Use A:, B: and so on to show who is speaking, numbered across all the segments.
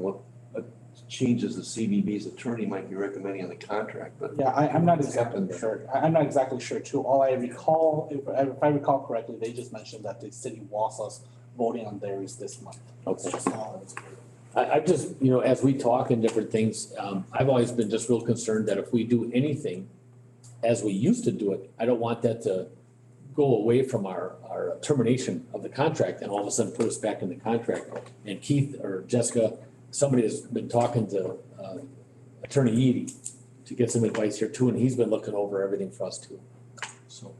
A: what uh, changes the CBB's attorney might be recommending on the contract, but
B: Yeah, I, I'm not
A: It's
B: exactly
A: happened.
B: sure. I, I'm not exactly sure too. All I recall, if, if I recall correctly, they just mentioned that the city wants us voting on theirs this month. It's
C: Okay.
B: just all it's-
C: I, I just, you know, as we talk and different things, um, I've always been just real concerned that if we do anything as we used to do it, I don't want that to go away from our, our termination of the contract and all of a sudden put us back in the contract. And Keith or Jessica, somebody has been talking to, uh, Attorney Eady to get some advice here too, and he's been looking over everything for us too. So,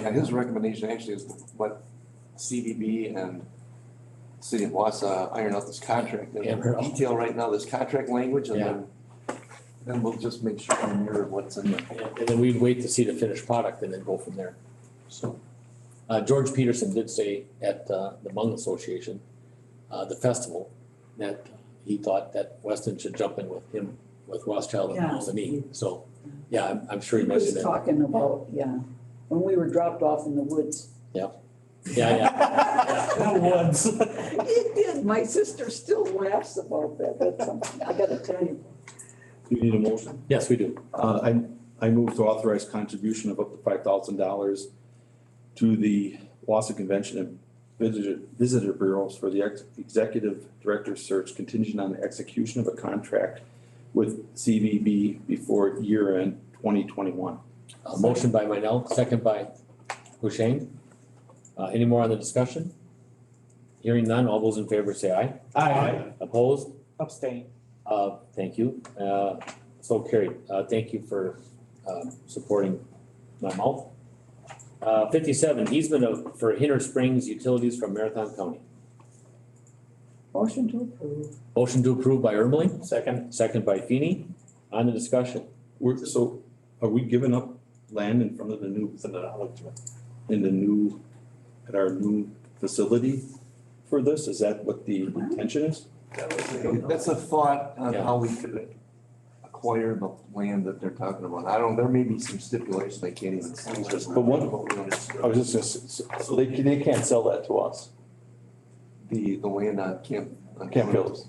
A: yeah, his recommendation actually is what CBB and City of Wausau iron out this contract
C: Yeah,
A: in
C: we're all-
A: detail right now, this contract language, and then then we'll just make sure we mirror what's in there.
C: and and then we'd wait to see the finished product and then go from there. So, uh, George Peterson did say at, uh, the Hmong Association, uh, the festival, that he thought that Weston should jump in with him, with Rothschild and
D: Yeah.
C: Mosinee, so, yeah, I'm, I'm sure he
D: He was
C: mentioned that.
D: talking about, yeah, when we were dropped off in the woods.
C: Yeah, yeah,
B: The woods.
D: It did, my sister still laughs about that, that's something, I gotta tell you.
E: You need a motion?
C: yes, we do,
E: Uh, I, I move to authorize contribution of up to five thousand dollars to the Wausau Convention and Visitor, Visitor Bureaus for the ex- executive director search contingent on the execution of a contract with CVB before year end twenty twenty-one.
C: a Uh, motion by Minell, second by Husheng. Uh, any more on the discussion? Hearing none, all those in favor say aye.
B: I
C: Opposed?
B: abstain.
C: Uh, thank you. Uh, so carried. Uh, thank you for, uh, supporting my mouth. Uh, fifty-seven, easement of, for Hinner Springs Utilities from Marathon County.
D: Motion to approve.
C: Motion to approve by Ermeling,
B: Second.
C: second by Feeny. On the discussion.
E: We're, so are we giving up land in front of the new, in the new, at our new facility for this? Is that what the intention is?
A: That's a thought on
C: Yeah.
A: how we could acquire the land that they're talking about. I don't, there may be some stipulations they can't even. see.
E: But one-
A: What we understood.
E: I was just gonna, s- s- so they, they can't sell that to us,
A: The, the land on Camp. on
E: Camp Phillips.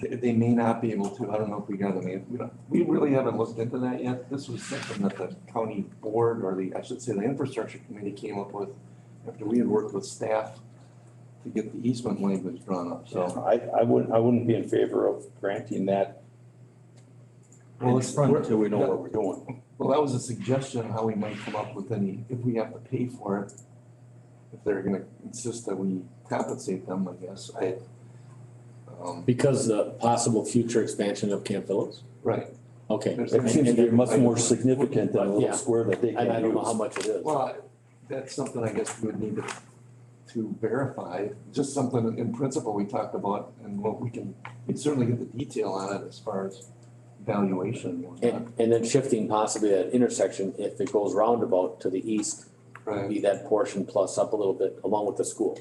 A: They, they may not be able to, I don't know if we got them, in. we don't, we really haven't looked into that yet. This was something that the county board, or the, I should say, the infrastructure committee came up with after we had worked with staff to get the easement language drawn up, so.
E: So I, I wouldn't, I wouldn't be in favor of granting that
A: Well,
E: in
A: it's-
E: front
A: we're-
E: until we know what we're doing.
A: Well, that was a suggestion on how we might come up with any, if we have to pay for it, if they're gonna insist that we compensate them, I guess, I. um,
C: Because the possible future expansion of Camp Phillips.
A: Right,
C: Okay.
A: There's-
E: It seems to be much more significant than a
C: Yeah.
E: little square that they
C: And I
E: can
C: don't know how
E: use.
C: much it is.
A: well, that's something I guess we would need to, to verify, just something in principle we talked about, and what we can, we'd certainly get the detail on it as far as valuation and whatnot.
C: And, and then shifting possibly that intersection, if it goes roundabout to the east, would
A: Right,
C: be that portion plus up a little bit along with the school.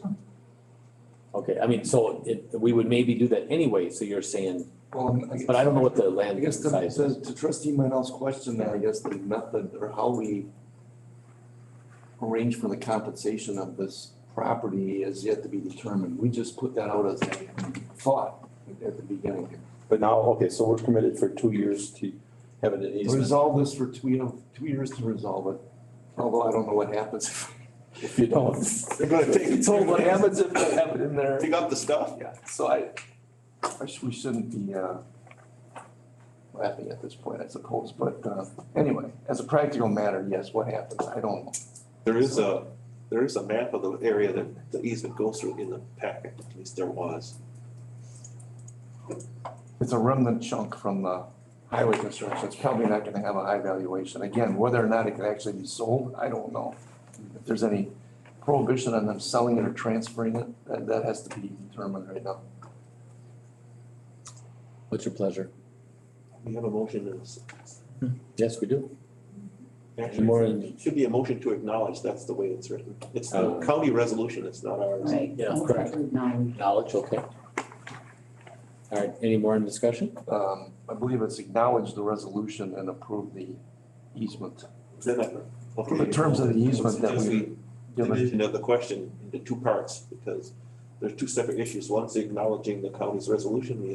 C: Okay, I mean, so it, we would maybe do that anyway, so you're saying,
A: well, I guess.
C: but I don't know what the
A: I
C: land
A: guess to,
C: size
A: to
C: is.
A: to trustee Manel's question, then I guess the method or how we arrange for the compensation of this property is yet to be determined. We just put that out as a thought at the beginning here.
E: But now, okay, so we're committed for two years to having an easement.
A: Resolve this for two, you know, two years to resolve it, although I don't know what happens. if-
E: If you don't,
A: They're gonna take,
E: Told what happens
A: if they have it in there.
E: dig up the stuff.
A: Yeah, so I, I sh we shouldn't be, uh, laughing at this point, I suppose, but, uh, anyway, as a practical matter, yes, what happens, I don't know.
F: There is a, there is a map of the area that the easement goes through in the packet, at least there was.
A: It's a remnant chunk from the highway construction, it's probably not gonna have a high valuation, again, whether or not it can actually be sold, I don't know. If there's any prohibition on them selling it or transferring it, that, that has to be determined right now.
C: What's your pleasure?
F: We have a motion in this.
C: Yes, we do.
F: Actually,
C: More in-
F: it should be a motion to acknowledge, that's the way it's written. It's the
C: Oh.
F: county resolution, it's not ours.
D: Right.
C: Yeah, correct.
D: No.
C: Knowledge, okay. All right, any more in discussion?
A: Um, I believe it's acknowledged the resolution and approved the easement.
F: Then I- okay.
A: The terms of the easement that
F: Just
A: we-
F: the
A: Give it-
F: Division of the question into two parts, because there's two separate issues, one's acknowledging the county's resolution, the